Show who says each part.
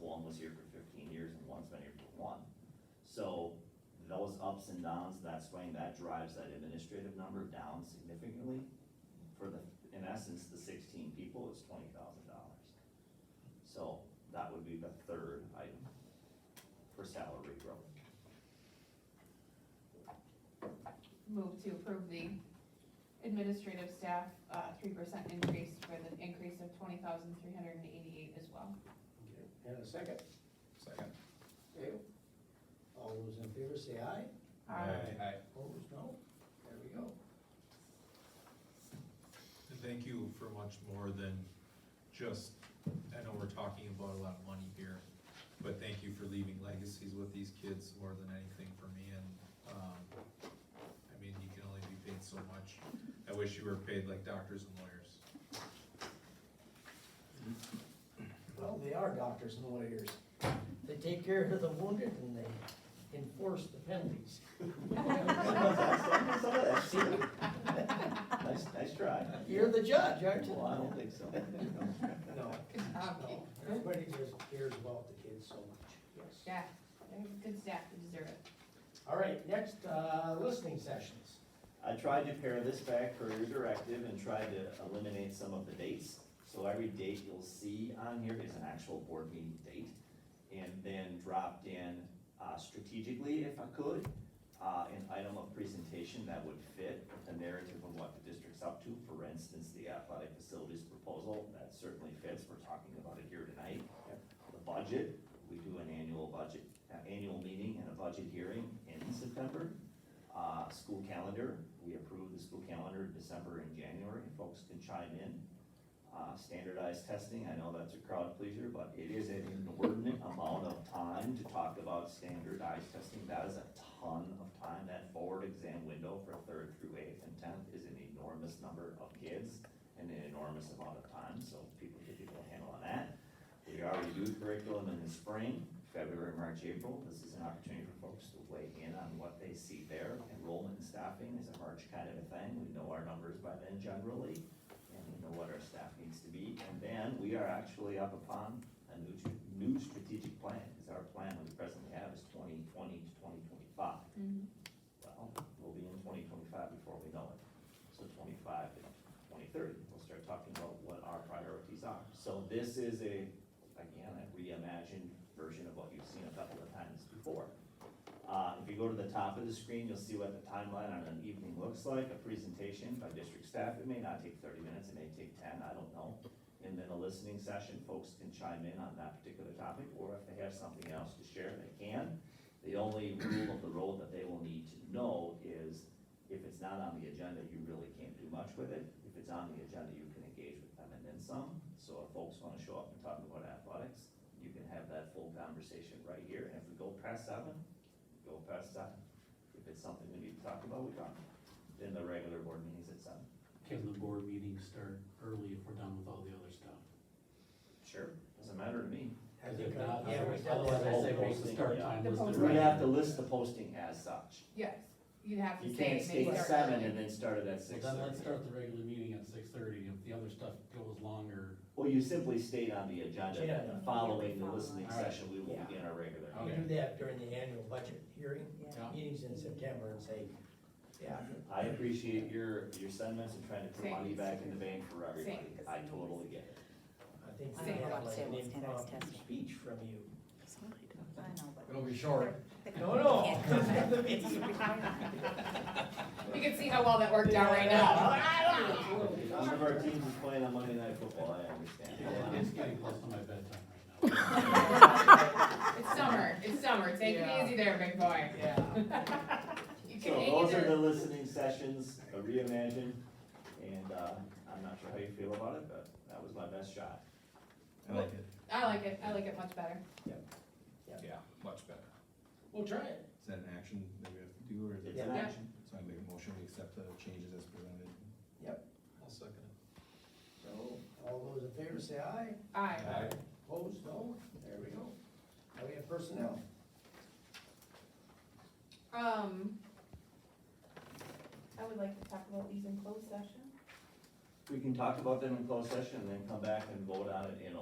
Speaker 1: one was here for fifteen years and one's been here for one. So those ups and downs, that swing, that drives that administrative number down significantly. For the, in essence, the sixteen people is twenty thousand dollars. So that would be the third item for salary growth.
Speaker 2: Move to approve the administrative staff, uh, three percent increase for the increase of twenty thousand three hundred and eighty-eight as well.
Speaker 3: Okay, And a second,
Speaker 4: Second.
Speaker 3: okay, all those in favor say aye,
Speaker 2: Uh,
Speaker 4: Aye.
Speaker 3: opposed, no, there we go.
Speaker 5: And thank you for much more than just, I know we're talking about a lot of money here, but thank you for leaving legacies with these kids more than anything for me and, um, I mean, you can only be paid so much. I wish you were paid like doctors and lawyers.
Speaker 3: Well, they are doctors and lawyers, they take care of the wounded and they enforce the penalties.
Speaker 1: Some of that's true. Nice, nice try.
Speaker 3: You're the judge, aren't you?
Speaker 1: Well, I don't think so.
Speaker 3: No,
Speaker 2: Good job,
Speaker 3: no,
Speaker 2: Kate.
Speaker 3: everybody just cares about the kids so much, yes.
Speaker 2: Yeah, they have good staff, they deserve it.
Speaker 3: All right, next, uh, listening sessions.
Speaker 1: I tried to pare this back per your directive and tried to eliminate some of the dates. So every date you'll see on here is an actual board meeting date. And then dropped in uh, strategically, if I could, uh, an item of presentation that would fit with the narrative of what the district's up to. For instance, the athletic facilities proposal, that certainly fits, we're talking about it here tonight. The budget, we do an annual budget, uh, annual meeting and a budget hearing in September. Uh, school calendar, we approve the school calendar in December and January, folks can chime in. Uh, standardized testing, I know that's a crowd pleaser, but it is an inordinate amount of time to talk about standardized testing. That is a ton of time, that forward exam window for third through eighth and tenth is an enormous number of kids and an enormous amount of time, so people get people a handle on that. We already do curriculum in the spring, February, March, April. This is an opportunity for folks to weigh in on what they see there. Enrollment and staffing is a March kind of a thing. We know our numbers by then generally, and we know what our staff needs to be. And then we are actually up upon a new, tr- new strategic plan, because our plan we presently have is twenty twenty to twenty twenty-five. Well, we'll be in twenty twenty-five before we know it. So twenty-five to twenty thirty, we'll start talking about what our priorities are. So this is a, again, a reimagined version of what you've seen a couple of times before. Uh, if you go to the top of the screen, you'll see what the timeline on an evening looks like, a presentation by district staff. It may not take thirty minutes, it may take ten, I don't know. And then a listening session, folks can chime in on that particular topic, or if they have something else to share, they can. The only rule of the road that they will need to know is if it's not on the agenda, you really can't do much with it. If it's on the agenda, you can engage with them and then some. So if folks wanna show up and talk about athletics, you can have that full conversation right here. And if we go past seven, go past seven. If it's something we need to talk about, we talk. Then the regular board meeting's at seven.
Speaker 6: Can the board meetings start early if we're done with all the other stuff?
Speaker 1: Sure. Doesn't matter to me.
Speaker 3: I
Speaker 6: Because
Speaker 3: think, uh,
Speaker 6: if not,
Speaker 3: yeah, we
Speaker 6: otherwise,
Speaker 3: dealt with
Speaker 6: otherwise I
Speaker 1: all
Speaker 6: say make the
Speaker 1: posting,
Speaker 6: start
Speaker 1: yeah.
Speaker 6: time
Speaker 2: The
Speaker 6: listed.
Speaker 2: posting.
Speaker 1: We'd
Speaker 6: right
Speaker 1: have
Speaker 6: now.
Speaker 1: to list the posting as such.
Speaker 2: Yes, you'd have to
Speaker 1: You
Speaker 2: say
Speaker 1: can't
Speaker 2: maybe
Speaker 1: state
Speaker 2: start.
Speaker 1: seven and then start it at six
Speaker 6: Well, then let's
Speaker 1: thirty.
Speaker 6: start the regular meeting at six thirty, if the other stuff goes longer,
Speaker 1: Well, you simply state on the agenda,
Speaker 3: Yeah.
Speaker 1: and following the listening
Speaker 6: Alright.
Speaker 1: session, we will
Speaker 3: Yeah.
Speaker 1: begin our regular.
Speaker 6: Okay.
Speaker 3: We do that during the annual budget hearing,
Speaker 6: Yeah.
Speaker 3: meetings in September and say, yeah,
Speaker 1: I appreciate your, your sentiments and trying to put money
Speaker 2: Thanks.
Speaker 1: back in the bank for everybody.
Speaker 2: Thanks.
Speaker 1: I totally get it.
Speaker 3: I think we
Speaker 2: Say
Speaker 3: have
Speaker 2: about
Speaker 3: like an
Speaker 7: sales standards
Speaker 3: impromptu
Speaker 7: testing.
Speaker 3: speech from you.
Speaker 7: I know, but.
Speaker 4: It'll be short.
Speaker 3: No, no.
Speaker 2: You can see how well that worked out right now.
Speaker 1: One of our teams is playing on Monday Night Football, I understand.
Speaker 6: it's getting close to my bedtime right now.
Speaker 2: It's summer, it's summer, take it
Speaker 3: Yeah.
Speaker 2: easy there, big boy.
Speaker 3: Yeah.
Speaker 2: You can
Speaker 1: So
Speaker 2: hang in
Speaker 1: those are the
Speaker 2: there.
Speaker 1: listening sessions, a reimagine, and, uh, I'm not sure how you feel about it, but that was my best shot.
Speaker 4: I like it.
Speaker 2: I like it, I like it much better.
Speaker 4: Yeah, much better.
Speaker 3: We'll try it.
Speaker 4: Is that an action that we have to do, or is it?
Speaker 1: It's an
Speaker 2: Yeah.
Speaker 1: action.
Speaker 4: So I make a motion, we accept the changes as presented.
Speaker 5: I'll second it.
Speaker 3: So, all those in favor say aye,
Speaker 2: Aye.
Speaker 3: opposed, no, there we go. Now we have personnel.
Speaker 2: Um, I would like to talk about these in closed session.
Speaker 1: We can talk about them in closed session and then come back and vote on it in